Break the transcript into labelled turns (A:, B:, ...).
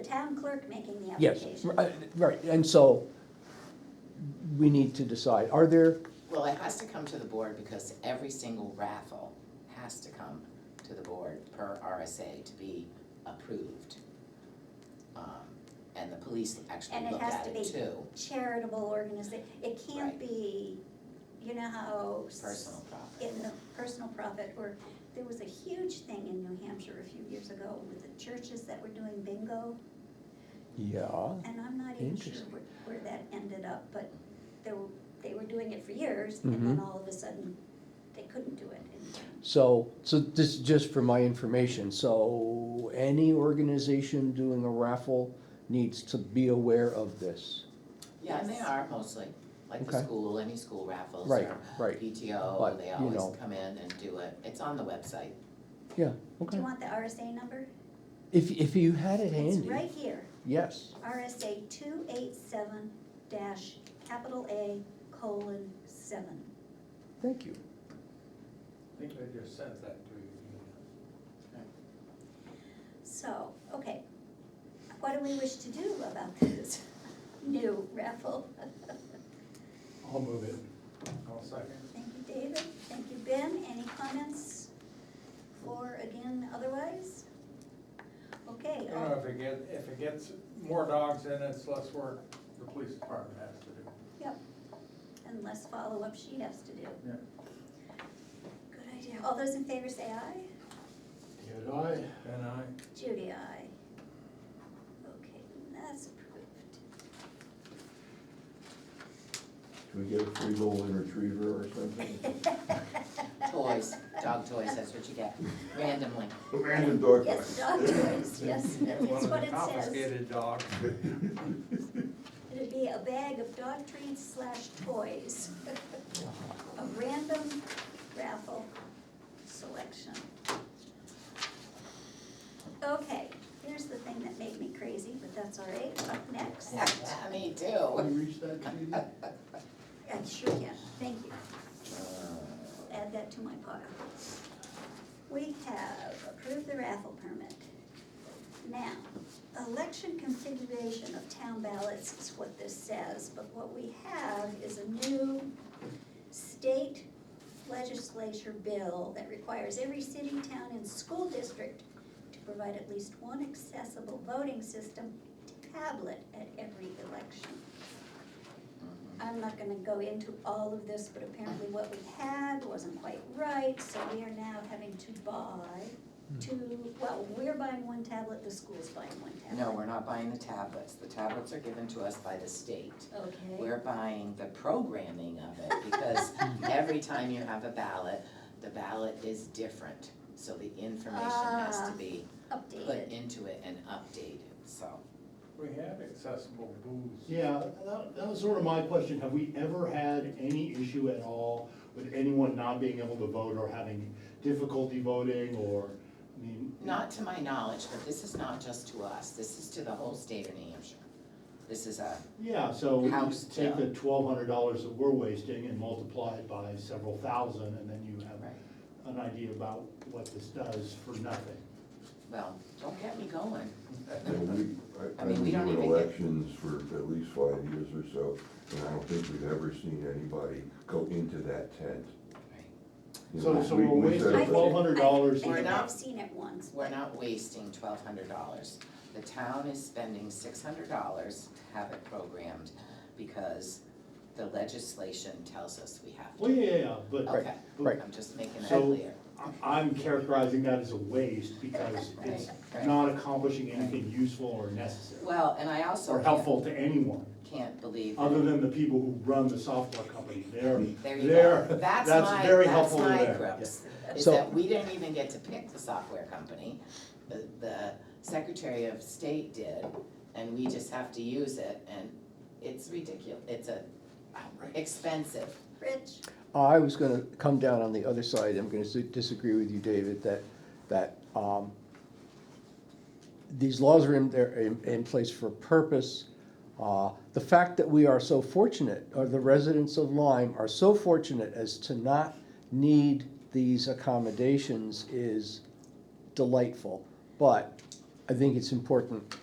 A: the town clerk making the
B: Yes,
A: application.
B: uh, right, and so we need to decide, are there,
C: Well, it has to come to the board because every single raffle has to come to the board per RSA to be approved. Um, And the police actually
A: And it
C: look
A: has
C: at
A: to
C: it
A: be
C: too,
A: Charitable organization, it can't
C: Right.
A: be, you know how. s-
C: personal profit.
A: In the personal profit, or there was a huge thing in New Hampshire a few years ago with the churches that were doing bingo.
B: yeah,
A: And I'm not even sure
B: Interesting.
A: where, where that ended up, but they were, they were doing it for years, and then
B: Mhm.
A: all of a sudden, they couldn't do it. anymore.
B: so, so this is just for my information, so any organization doing a raffle needs to be aware of this,
C: Yeah, and they are mostly, like the
B: Okay.
C: school, any school raffles
B: right,
C: or
B: right, But,
C: PTO, they
B: you know.
C: always come in and do it. It's on the website.
B: yeah,
A: Do
B: okay.
A: you want the RSA number?
B: If, if you had it
A: It's
B: handy,
A: right here,
B: yes,
A: RSA two eight seven dash capital A colon seven.
B: thank you,
D: I think I just sent that to you.
A: So, okay, what do we wish to do about this new raffle?
D: I'll move it. I'll second.
A: Thank you, David, thank you, Ben, any comments for, again, otherwise? Okay,
D: You
A: all-
D: know, if it get, if it gets more dogs in, it's less work the police department has to do.
A: and less follow-up she has to do.
D: Yeah.
A: Good idea, all those in favor say aye?
D: Did I? And I.
A: Judy, aye. Okay, that's approved.
E: Can we get a free golden retriever or something?
C: Toys, dog toys, that's what you get randomly.
E: Random dog.
A: Yes, dog toys, yes, that's
D: One of
A: what
D: the
A: it says.
D: confiscated dogs.
A: It'd be a bag of dog treats slash toys. A random raffle selection. Okay, here's the thing that made me crazy, but that's all right, up next.
C: Me too.
E: Can you reach that, Judy?
A: I sure can, thank you.
C: Uh,
A: add that to my pile. We have approved the raffle permit. Now, election configuration of town ballots is what this says, but what we have is a new state legislature bill that requires every city, town, and school district to provide at least one accessible voting system tablet at every election. I'm not gonna go into all of this, but apparently what we had wasn't quite right, so we are now having to buy two, well, we're buying one tablet, the school's buying one
C: No,
A: tablet.
C: we're not buying the tablets. The tablets are given to us by the state.
A: Okay,
C: We're buying the programming of it because every time you have a ballot, the ballot is different. So the information has
A: Ah.
C: to be put
A: updated.
C: into it and updated, so.
D: We have accessible booze.
F: Yeah, that, that was sort of my question, have we ever had any issue at all with anyone not being able to vote or having difficulty voting or, I mean.
C: Not to my knowledge, but this is not just to us. This is to the whole state of New Hampshire. This is a,
F: Yeah, so we
C: House
F: take the
C: bill.
F: twelve hundred dollars that we're wasting and multiply it by several thousand, and then you have
C: right,
F: an idea about what this does for nothing.
C: well, don't get me going.
E: Yeah, we- I-
C: I
E: I've
C: mean, we
E: been
C: don't
E: doing
C: even get-
E: elections for at least five years or so, and I don't think we've ever seen anybody go into that tent.
C: Right.
E: You
F: So,
E: know,
F: so
E: we-
F: we're
E: we
F: wasting
E: said that-
F: twelve hundred dollars.
A: I I
C: We're
A: think
C: not-
A: I've seen it once,
C: We're not wasting twelve hundred dollars. The town is spending six hundred dollars to have it programmed because the legislation tells us we have to.
F: Well, yeah, yeah, yeah, but.
C: Okay,
F: but
C: I'm just making that
F: So-
C: clear.
F: I- I'm characterizing that as a waste because it's not accomplishing anything useful or necessary
C: Well, and I also
F: or
C: can't,
F: helpful to anyone,
C: can't believe that
F: other than the people who run the software company. They're,
C: There you go.
F: they're,
C: That's
F: that's
C: my,
F: very
C: that's
F: helpful to
C: my
F: them,
C: grips, is
B: So-
C: that we didn't even get to pick the software company. The, the Secretary of State did, and we just have to use it, and it's ridiculous, it's a expensive.
A: Rich,
B: I was gonna come down on the other side, I'm gonna s- disagree with you, David, that, that, um, these laws are in, there in, in place for a purpose. Uh, the fact that we are so fortunate, or the residents of Lyme are so fortunate as to not need these accommodations is delightful. But I think it's important